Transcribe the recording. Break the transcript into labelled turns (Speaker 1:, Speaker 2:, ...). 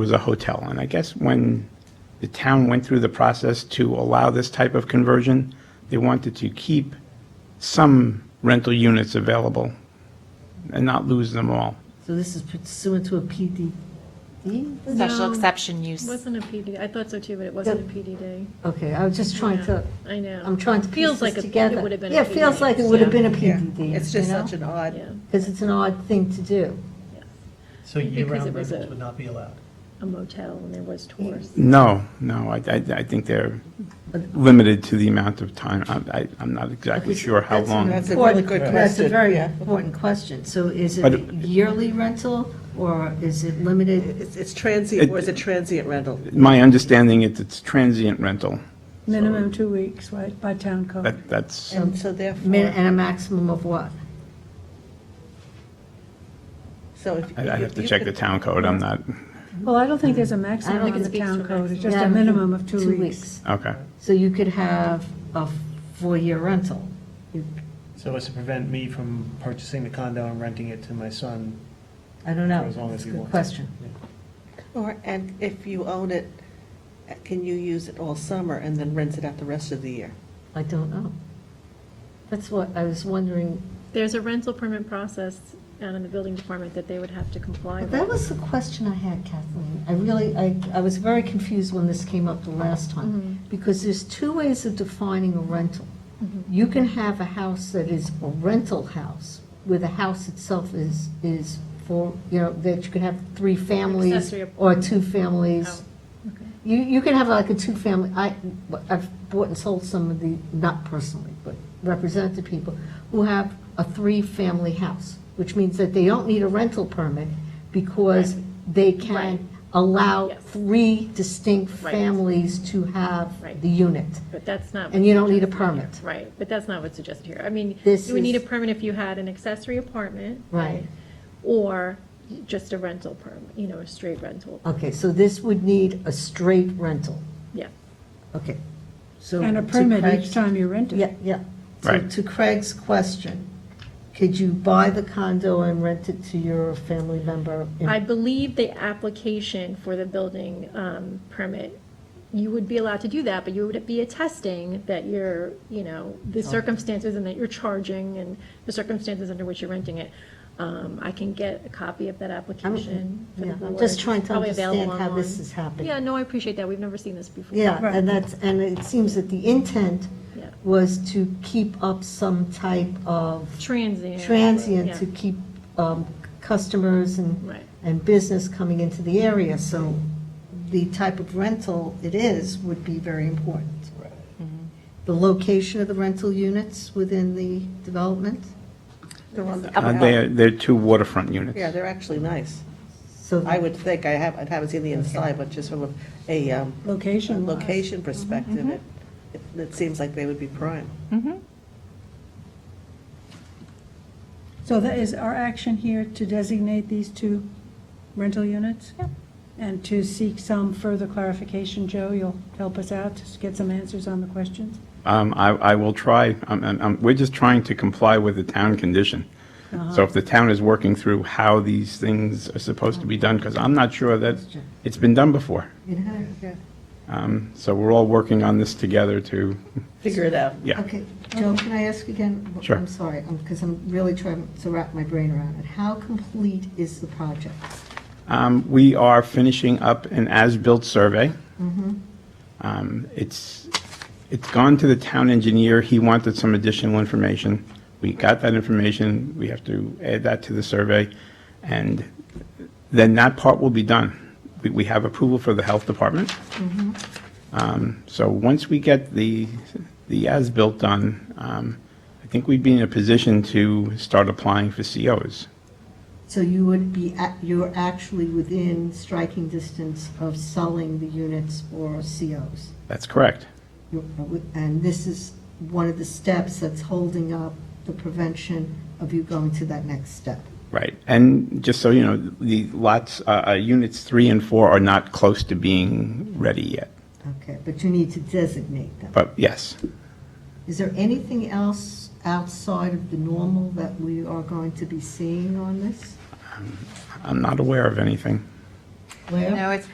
Speaker 1: was a hotel. And I guess when the town went through the process to allow this type of conversion, they wanted to keep some rental units available and not lose them all.
Speaker 2: So this is pursuant to a PD?
Speaker 3: Special
Speaker 4: No.
Speaker 3: exception use.
Speaker 4: It wasn't a PD, I thought so too, but it wasn't a PD day.
Speaker 2: Okay, I was just trying to,
Speaker 4: I know.
Speaker 2: I'm trying to
Speaker 4: Feels
Speaker 2: piece
Speaker 4: like
Speaker 2: this
Speaker 4: it-
Speaker 2: together.
Speaker 4: it would have been a
Speaker 2: Yeah, it feels
Speaker 4: PD,
Speaker 2: like it would have
Speaker 4: yeah.
Speaker 2: been a
Speaker 5: Yeah,
Speaker 2: PD, you
Speaker 5: it's just such an odd,
Speaker 4: Yeah,
Speaker 2: Because it's an odd thing to do.
Speaker 6: So
Speaker 4: Because
Speaker 6: year-round
Speaker 4: it was
Speaker 6: rentals
Speaker 4: a-
Speaker 6: would not be allowed?
Speaker 4: a motel and there was tours.
Speaker 1: No, no, I, I, I think they're limited to the amount of time. I, I, I'm not exactly sure how
Speaker 2: That's-
Speaker 1: long.
Speaker 5: that's a really good
Speaker 2: Important-
Speaker 5: question.
Speaker 2: That's a very
Speaker 5: yeah.
Speaker 2: important question. So is it
Speaker 1: But-
Speaker 2: yearly rental or is it limited?
Speaker 5: It's it's transient, or is
Speaker 1: It-
Speaker 5: it transient rental?
Speaker 1: My understanding is it's transient rental.
Speaker 7: Minimum two weeks, right, by town code.
Speaker 1: That, that's,
Speaker 5: And Um, so
Speaker 2: Min-
Speaker 5: therefore,
Speaker 2: And a maximum of what?
Speaker 5: so if.
Speaker 1: I I have to
Speaker 5: you
Speaker 1: check the
Speaker 5: could-
Speaker 1: town code, I'm not,
Speaker 7: Well, I don't think there's a maximum
Speaker 2: think
Speaker 7: on
Speaker 2: it
Speaker 7: the
Speaker 4: speaks to
Speaker 7: town
Speaker 4: a
Speaker 7: code, it's just
Speaker 2: Yeah,
Speaker 7: a minimum of two weeks.
Speaker 1: okay.
Speaker 2: So you could have a four-year rental.
Speaker 6: So as to prevent me from purchasing the condo and renting it to my son?
Speaker 2: I don't know.
Speaker 6: For as long as
Speaker 2: That's a
Speaker 6: you
Speaker 2: good
Speaker 6: want.
Speaker 2: question.
Speaker 5: Or, and if you own it, can you use it all summer and then rent it out the rest of the year?
Speaker 2: I don't know. That's what I was wondering.
Speaker 4: There's a rental permit process out in the building department that they would have to comply
Speaker 2: That
Speaker 4: with.
Speaker 2: was the question I had, Kathleen. I really, I, I was very confused when this came up the last
Speaker 4: Mm-hmm.
Speaker 2: time. Because there's two ways of defining a rental.
Speaker 4: Mm-hmm.
Speaker 2: You can have a house that is a rental house, where the house itself is, is for, you know, that you can have three families
Speaker 4: Accessory
Speaker 2: or two families.
Speaker 4: Oh, okay.
Speaker 2: You, you can have like a two-family, I, I've bought and sold some of the, not personally, but represented people who have a three-family house, which means that they don't need a rental permit because they
Speaker 4: Right.
Speaker 2: can allow
Speaker 4: Yes.
Speaker 2: three distinct
Speaker 4: Right.
Speaker 2: families to have
Speaker 4: Right.
Speaker 2: the unit.
Speaker 4: But that's not.
Speaker 2: And you don't need a permit.
Speaker 4: Right, but that's not what's suggested here. I mean,
Speaker 2: This
Speaker 4: you would need a
Speaker 2: is-
Speaker 4: permit if you had an accessory apartment.
Speaker 2: Right.
Speaker 4: Or just a rental permit, you know, a straight rental,
Speaker 2: Okay, so this would need a straight rental.
Speaker 4: yeah.
Speaker 2: Okay. So
Speaker 7: And a
Speaker 2: to
Speaker 7: permit each
Speaker 2: Craig's-
Speaker 7: time you rent it.
Speaker 2: Yeah, yeah. So
Speaker 1: Right.
Speaker 2: to Craig's question, could you buy the condo and rent it to your family member? in-
Speaker 4: I believe the application for the building um, permit, you would be allowed to do that, but you would be attesting that you're, you know, the circumstances and that you're charging and the circumstances under which you're renting it. Um, I can get a copy of that application for
Speaker 2: Yeah,
Speaker 4: the
Speaker 2: I'm
Speaker 4: board.
Speaker 2: just trying to
Speaker 4: Probably available
Speaker 2: understand how this
Speaker 4: online.
Speaker 2: is happening.
Speaker 4: Yeah, no, I appreciate that. We've never seen this before.
Speaker 2: Yeah,
Speaker 7: Right.
Speaker 2: and that's, and it seems that the intent
Speaker 4: Yeah.
Speaker 2: was to keep up some type of
Speaker 4: Transient.
Speaker 2: transient,
Speaker 4: Yeah.
Speaker 2: to keep um, customers and,
Speaker 4: Right.
Speaker 2: and business coming into the area. So the type of rental it is would be very important. The location of the rental units within the development,
Speaker 5: They're on the-
Speaker 1: Uh, They're, they're two waterfront units.
Speaker 5: Yeah, they're actually nice.
Speaker 2: so.
Speaker 5: I would think, I haven't, I haven't seen the inside, but just from a- a um,
Speaker 7: Location wise.
Speaker 5: location perspective, it, it- it seems like they would be prime.
Speaker 7: So that is our action here to designate these two rental units? And to seek some further clarification, Joe, you'll help us out to get some answers on the questions?
Speaker 1: Um, I, I will try, I'm, I'm- I'm, we're just trying to comply with the town condition. So if the town is working through how these things are supposed to be done, because I'm not sure that it's been done before.
Speaker 2: It has.
Speaker 1: Um, So we're all working on this together to,
Speaker 5: Figure it out.
Speaker 1: yeah.
Speaker 2: Okay, Joe, can I ask again?
Speaker 1: Sure.
Speaker 2: I'm sorry, because I'm really trying to wrap my brain around it. How complete is the project?
Speaker 1: Um, We are finishing up an as-built survey. Um, It's, it's gone to the town engineer, he wanted some additional information. We got that information, we have to add that to the survey, and then that part will be done. We- We have approval for the health department. Um, So once we get the, the as-built done, um, I think we'd be in a position to start applying for COs.
Speaker 2: So you would be, at- you're actually within striking distance of selling the units or COs.
Speaker 1: That's correct.
Speaker 2: You're- And this is one of the steps that's holding up the prevention of you going to that next step.
Speaker 1: Right, and just so you know, the lots, uh, uh, units three and four are not close to being ready yet,
Speaker 2: Okay, but you need to designate them.
Speaker 1: but yes.
Speaker 2: Is there anything else outside of the normal that we are going to be seeing on this?
Speaker 1: I'm not aware of anything.
Speaker 2: Where?
Speaker 3: No, it's